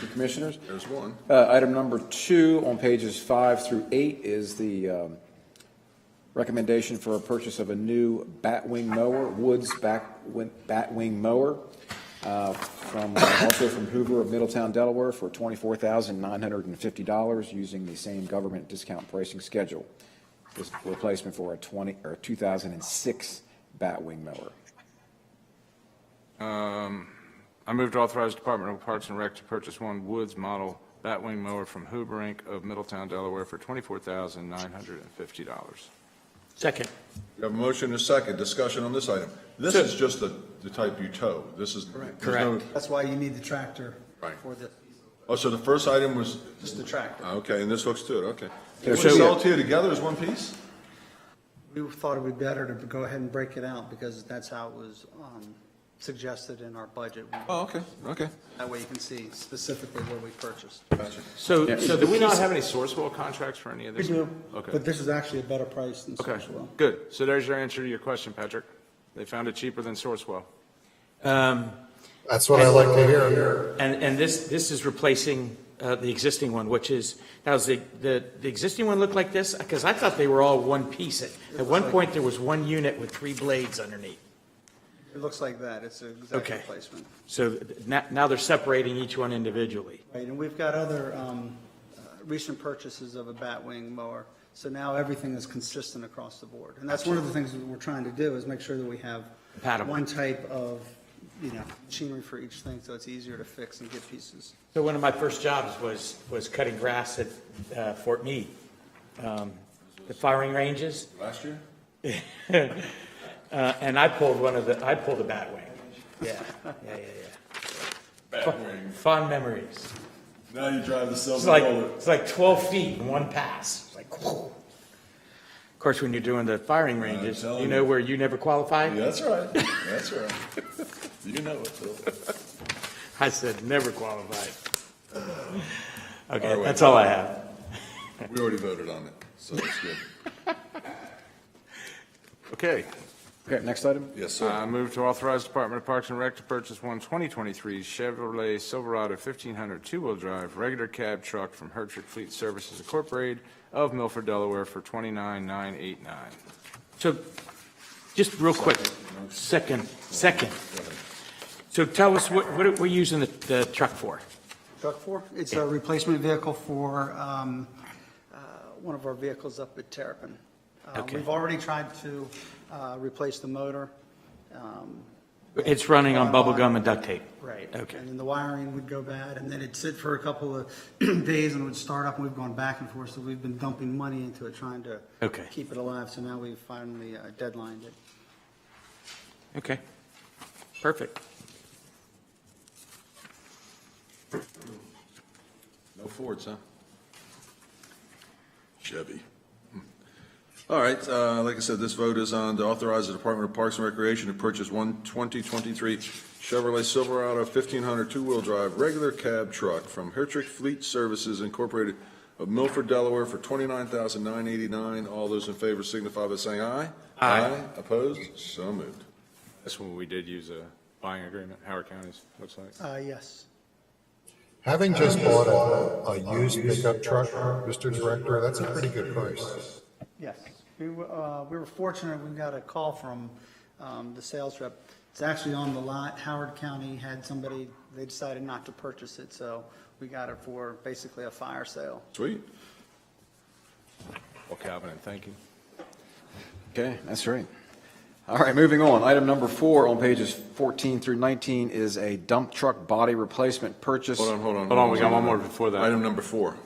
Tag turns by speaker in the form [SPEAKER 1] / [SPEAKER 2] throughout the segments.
[SPEAKER 1] the commissioners.
[SPEAKER 2] There's one.
[SPEAKER 1] Uh, Item number two on pages five through eight is the um, recommendation for a purchase of a new batwing mower, Woods backwing- batwing mower, uh, from, also from Hoover of Middletown, Delaware, for $24,950, using the same government discount pricing schedule. This is a replacement for a 20, or 2006 batwing mower.
[SPEAKER 3] I move to authorize Department of Parks and Rec to purchase one Woods model batwing mower from Huber Inc. of Middletown, Delaware for $24,950.
[SPEAKER 4] Second.
[SPEAKER 2] We have a motion and a second, discussion on this item. This is just the, the type you tow, this is. there's no-
[SPEAKER 4] Correct.
[SPEAKER 5] That's why you need the tractor
[SPEAKER 2] Right.
[SPEAKER 5] for the,
[SPEAKER 2] Oh, so the first item was,
[SPEAKER 5] just the tractor.
[SPEAKER 2] okay, and this looks to it, okay.
[SPEAKER 1] Yeah,
[SPEAKER 2] Would
[SPEAKER 1] so-
[SPEAKER 2] sell it to you together as one piece?
[SPEAKER 5] We thought it would be better to go ahead and break it out because that's how it was um, suggested in our budget.
[SPEAKER 2] Oh, okay, okay.
[SPEAKER 5] That way you can see specifically what we purchased.
[SPEAKER 3] So, so do we not have any Sourcewell contracts for any of this? Okay,
[SPEAKER 5] But this is actually a better price than
[SPEAKER 3] okay,
[SPEAKER 5] Sourcewell.
[SPEAKER 3] good. So there's your answer to your question, Patrick. They found it cheaper than Sourcewell.
[SPEAKER 4] Um,
[SPEAKER 6] That's what I like uh, to hear.
[SPEAKER 4] And, and this, this is replacing uh, the existing one, which is, now, does the, the the existing one look like this? Because I thought they were all one piece. At at one point, there was one unit with three blades underneath.
[SPEAKER 5] It looks like that. It's an exact
[SPEAKER 4] Okay.
[SPEAKER 5] replacement.
[SPEAKER 4] So th- now, now they're separating each one individually.
[SPEAKER 5] Right, and we've got other um, uh, recent purchases of a batwing mower. So now everything is consistent across the board. And that's one of the things that we're trying to do is make sure that we have
[SPEAKER 4] Compatible.
[SPEAKER 5] one type of, you know, machinery for each thing so it's easier to fix and get pieces.
[SPEAKER 4] So one of my first jobs was, was cutting grass at uh, Fort Meade. Um, The firing ranges,
[SPEAKER 2] Last year?
[SPEAKER 4] uh, and I pulled one of the, I pulled a bat wing. Yeah, yeah, yeah, yeah. Fond memories.
[SPEAKER 2] Now you drive the
[SPEAKER 4] It's
[SPEAKER 2] silver
[SPEAKER 4] like, it's like 12 feet in one pass. It's like, whoa. Of course, when you're doing the firing ranges,
[SPEAKER 2] telling
[SPEAKER 4] you know
[SPEAKER 2] you.
[SPEAKER 4] where you never qualified?
[SPEAKER 2] That's right, that's right. You know it, Phil.
[SPEAKER 4] I said, never qualified.
[SPEAKER 2] All
[SPEAKER 4] Okay,
[SPEAKER 2] right.
[SPEAKER 4] that's all I have.
[SPEAKER 2] We already voted on it, so it's good.
[SPEAKER 3] Okay,
[SPEAKER 1] Okay, next item?
[SPEAKER 2] Yes, sir.
[SPEAKER 3] I move to authorize Department of Parks and Rec to purchase one 2023 Chevrolet Silverado 1500 two-wheel drive regular cab truck from Hertrick Fleet Services Incorporated of Milford, Delaware for 29989
[SPEAKER 4] So, just real quick, second, second. So tell us, what, what are we using the, the truck for?
[SPEAKER 5] Truck four, it's a replacement vehicle for um, uh, one of our vehicles up at Terrapin. Uh,
[SPEAKER 4] Okay.
[SPEAKER 5] We've already tried to uh, replace the motor. um,
[SPEAKER 4] It's running on bubble gum and duct tape.
[SPEAKER 5] Right.
[SPEAKER 4] Okay.
[SPEAKER 5] And then the wiring would go bad, and then it'd sit for a couple of days and it would start up, and we've gone back and forth, so we've been dumping money into it, trying to
[SPEAKER 4] Okay.
[SPEAKER 5] keep it alive, so now we've finally uh, deadlined it.
[SPEAKER 4] Okay, perfect.
[SPEAKER 2] No Fords, huh? Chevy. Hmm. All right, uh, like I said, this vote is on to authorize the Department of Parks and Recreation to purchase one 2023 Chevrolet Silverado 1500 two-wheel drive regular cab truck from Hertrick Fleet Services Incorporated of Milford, Delaware for $29,989. All those in favor signify by saying aye.
[SPEAKER 4] Aye.
[SPEAKER 2] Opposed? So moved.
[SPEAKER 3] That's when we did use a buying agreement, Howard County's, looks like.
[SPEAKER 5] Uh, Yes.
[SPEAKER 6] Having just bought a, a used pickup truck, Mr. Director, that's a pretty good price.
[SPEAKER 5] Yes. We were, uh, we were fortunate, we got a call from um, the sales rep. It's actually on the lot. Howard County had somebody, they decided not to purchase it, so we got it for basically a fire sale.
[SPEAKER 2] Sweet.
[SPEAKER 3] Well, Calvin, and thank you.
[SPEAKER 1] Okay, that's right. All right, moving on. Item number four on pages 14 through 19 is a dump truck body replacement purchase.
[SPEAKER 2] Hold on, hold on.
[SPEAKER 3] Hold on, we got one more before that.
[SPEAKER 2] Item number four.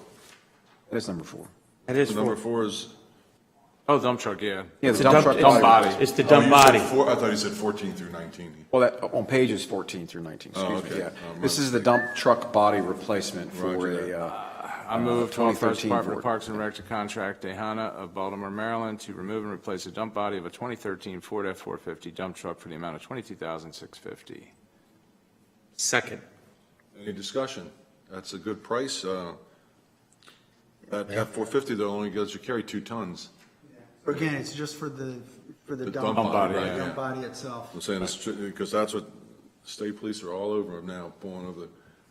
[SPEAKER 1] That's number four.
[SPEAKER 4] That is
[SPEAKER 2] Number
[SPEAKER 4] for.
[SPEAKER 2] four is
[SPEAKER 3] Oh, dump truck, yeah.
[SPEAKER 1] Yeah,
[SPEAKER 4] it's
[SPEAKER 1] the
[SPEAKER 4] a
[SPEAKER 1] dump truck
[SPEAKER 4] it's-
[SPEAKER 1] body.
[SPEAKER 3] body.
[SPEAKER 4] It's the
[SPEAKER 2] Oh,
[SPEAKER 4] dumb
[SPEAKER 2] you said
[SPEAKER 4] body.
[SPEAKER 2] four- I thought you said 14 through 19.
[SPEAKER 1] Well, that, on pages 14 through 19,
[SPEAKER 2] Oh,
[SPEAKER 1] excuse me,
[SPEAKER 2] okay.
[SPEAKER 1] yeah.
[SPEAKER 2] Oh,
[SPEAKER 1] This
[SPEAKER 2] my
[SPEAKER 1] is the dump truck body replacement for
[SPEAKER 2] Roger that.
[SPEAKER 1] a, uh,
[SPEAKER 3] I move to authorize
[SPEAKER 1] 2013
[SPEAKER 3] Department
[SPEAKER 1] Ford.
[SPEAKER 3] of Parks and Rec to contract Dehana of Baltimore, Maryland to remove and replace a dump body of a 2013 Ford F-450 dump truck for the amount of 22650
[SPEAKER 4] Second.
[SPEAKER 2] Any discussion? That's a good price. uh, That F-450 though only goes, you carry two tons.
[SPEAKER 5] Again, it's just for the, for the
[SPEAKER 2] The
[SPEAKER 5] dump.
[SPEAKER 2] dump
[SPEAKER 3] body,
[SPEAKER 5] the
[SPEAKER 3] yeah.
[SPEAKER 5] Dump body itself.
[SPEAKER 2] I'm saying it's, because that's what state police are all over now, pulling over the